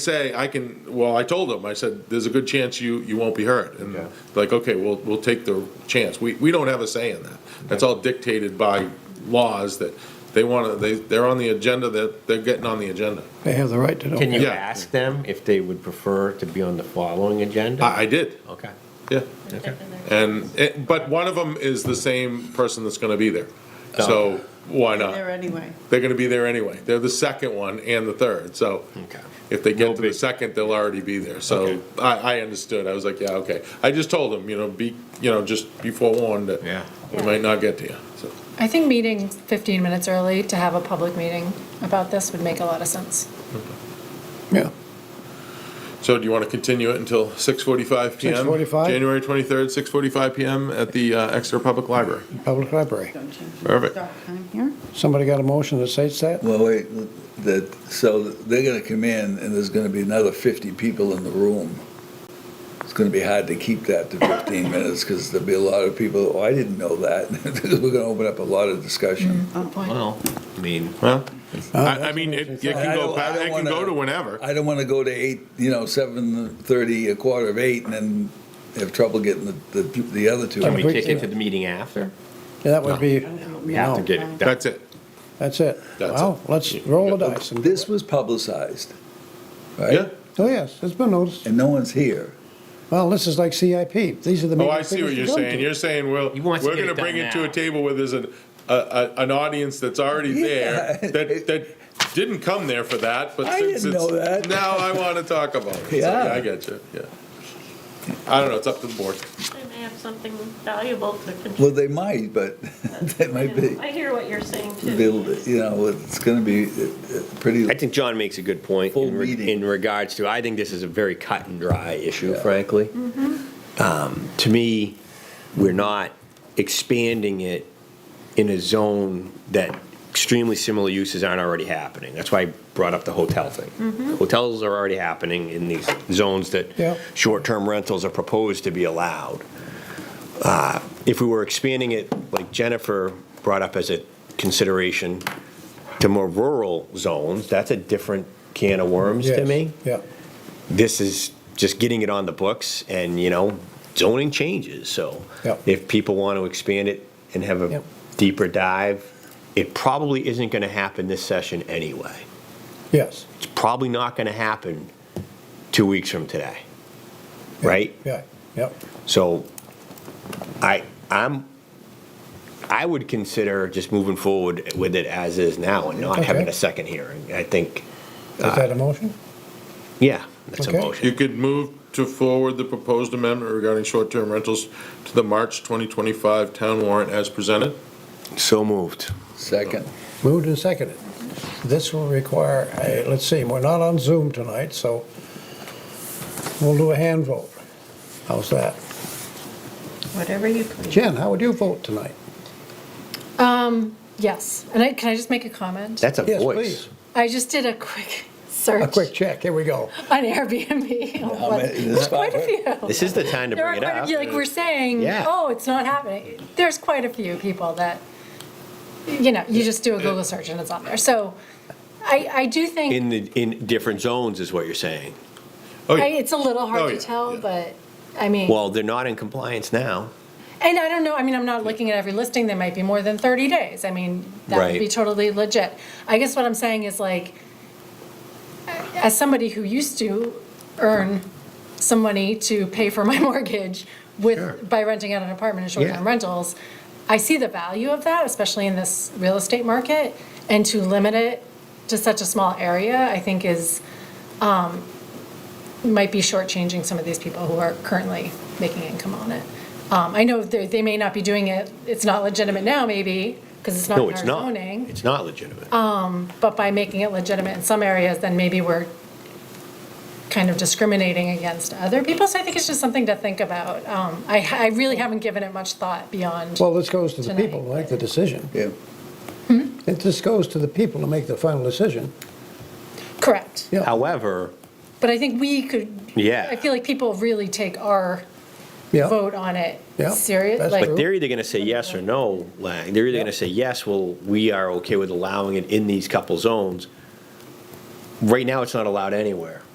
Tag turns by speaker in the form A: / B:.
A: say, I can, well, I told them, I said, there's a good chance you, you won't be hurt. And
B: Okay.
A: like, okay, we'll, we'll take the chance. We, we don't have a say in that. That's all dictated by laws that they want to, they, they're on the agenda, that they're getting on the agenda.
C: They have the right to know.
B: Can you
A: Yeah.
B: ask them if they would prefer to be on the following agenda?
A: I, I did,
B: Okay.
A: yeah.
B: Okay.
A: And, it- but one of them is the same person that's going to be there. So why
D: There
A: not?
D: anyway.
A: They're going to be there anyway. They're the second one and the third, so.
B: Okay.
A: If they get to the second, they'll already be there.
B: Okay.
A: So I, I understood. I was like, yeah, okay. I just told them, you know, be, you know, just be forewarned that
B: Yeah.
A: we might not get to you. So,
E: I think meeting 15 minutes early to have a public meeting about this would make a lot of sense.
C: Yeah,
A: so do you want to continue it until 6:45 p.m.?
C: 6:45?
A: January 23rd, 6:45 p.m. at the uh, Exeter Public Library.
C: public library.
D: Don't change the
A: Perfect.
D: start time here.
C: Somebody got a motion that states that?
F: Well, wait, that, so they're gonna come in and there's gonna be another fifty people in the room. It's gonna be hard to keep that to fifteen minutes, because there'll be a lot of people, oh, I didn't know that. We're gonna open up a lot of discussion.
D: Oh,
E: Good point.
B: Well, I mean,
A: Well,
C: Uh,
A: I, I mean, it, it
F: I
A: can
F: don't-
A: go. pa-
F: I don't
A: It can
F: wanna-
A: go to whenever.
F: I don't wanna go to eight, you know, seven thirty, a quarter of eight, and then have trouble getting the, the, the other two.
B: can we
C: we-
B: kick it to the meeting after?
C: Yeah, That would be,
B: We have to
C: no,
B: get it done.
A: That's it.
C: that's it.
A: That's
C: Well, let's roll the dice. and-
F: This was publicized, right?
A: Yeah.
C: Oh, yes, it's been noticed.
F: And no one's here.
C: Well, this is like CIP. These are the
A: Oh,
C: meetings.
A: I see what
C: we
A: you're
C: go to.
A: saying. You're saying, well,
B: He wants to
A: we're going
B: get
A: to
B: it done
A: bring it to a
B: now.
A: table where there's an, a, a, an audience that's already there
F: Yeah.
A: that, that didn't come there for that, but
F: I
A: since
F: didn't know
A: it's,
F: that.
A: now I want to talk about it. So,
F: Yeah.
A: I get you, yeah. I don't know, it's up to the board.
G: They may have something valuable to
F: Well,
G: contribute.
F: they might, but they might be.
G: I hear what you're saying too.
F: They'll, you know, it's going to be uh, uh, pretty.
B: I think John makes a good point
F: Full
B: in re-
F: meeting.
B: in regards to, I think this is a very cut and dry issue, frankly. Um, To me, we're not expanding it in a zone that extremely similar uses aren't already happening. That's why I brought up the hotel thing. Hotels are already happening in these zones
C: Yeah.
B: that short-term rentals are proposed to be allowed. Uh, If we were expanding it, like Jennifer brought up as a consideration, to more rural zones, that's a different can of worms to
C: Yes,
B: me.
C: Yeah,
B: This is just getting it on the books and, you know, zoning changes, so
C: Yep.
B: if people want to expand it and have a
C: Yep.
B: deeper dive, it probably isn't going to happen this session anyway.
C: yes,
B: It's probably not going to happen two weeks from today, right?
C: yeah, yeah.
B: So I, I'm, I would consider just moving forward with it as is now and not having
C: Okay.
B: a second hearing. I think, Ah.
C: Is that a motion?
B: yeah, that's a
C: Okay.
A: You
B: motion.
A: could move to forward the proposed amendment regarding short-term rentals to the March 2025 town warrant as presented.
B: So moved.
F: Second.
C: Moved and seconded. This will require, a- let's see, we're not on Zoom tonight, so we'll do a hand vote. How's that?
D: Whatever you please.
C: Jen, how would you vote tonight?
E: Yes, and I, can I just make a comment?
B: That's a
C: Yes,
B: voice.
C: please.
E: I just did a quick
C: A
E: search
C: quick check, here we go.
E: on Airbnb. of what-
F: many-
E: There's quite a few.
B: This is the time to
E: There are
B: bring it
E: quite a
B: up.
E: few, like we're saying,
B: Yeah.
E: oh, it's not happening. There's quite a few people that, you know, you just do a Google search and it's on there. So I, I do think,
B: In the, in different zones is what you're saying.
A: Oh,
E: I-
A: yeah.
E: it's a little
A: Oh,
E: hard to
A: yeah,
E: tell,
A: yeah.
E: but, I mean.
B: Well, they're not in compliance now.
E: And I don't know, I mean, I'm not looking at every listing, there might be more than 30 days. I mean, that would be
B: Right.
E: totally legit. I guess what I'm saying is like, as somebody who used to earn some money to pay for my mortgage with, by renting out an apartment and short-term
B: Yeah.
E: rentals, I see the value of that, especially in this real estate market. And to limit it to such a small area, I think is, might be shortchanging some of these people who are currently making income on it. Um, I know they, they may not be doing it, it's not legitimate now maybe, because it's not
B: No,
E: in
B: it's
E: our
B: not.
E: zoning. Um,
B: It's not legitimate.
E: But by making it legitimate in some areas, then maybe we're kind of discriminating against other people. So I think it's just something to think about. Um, I, I really haven't given it much thought beyond.
C: Well, this goes to the
E: Tonight.
C: people who make the decision.
F: Yeah.
C: It just goes to the people to make the final decision.
E: Correct.
C: Yeah.
B: However,
E: But I think we could.
B: Yeah.
E: I feel like people really take our
C: Yeah.
E: vote on it
C: Yeah,
E: serious.
C: that's
E: like-
C: true.
B: But they're either gonna say yes or no, Lang. They're either gonna say, yes, well, we are okay with allowing it in these couple zones. Right now, it's not allowed anywhere.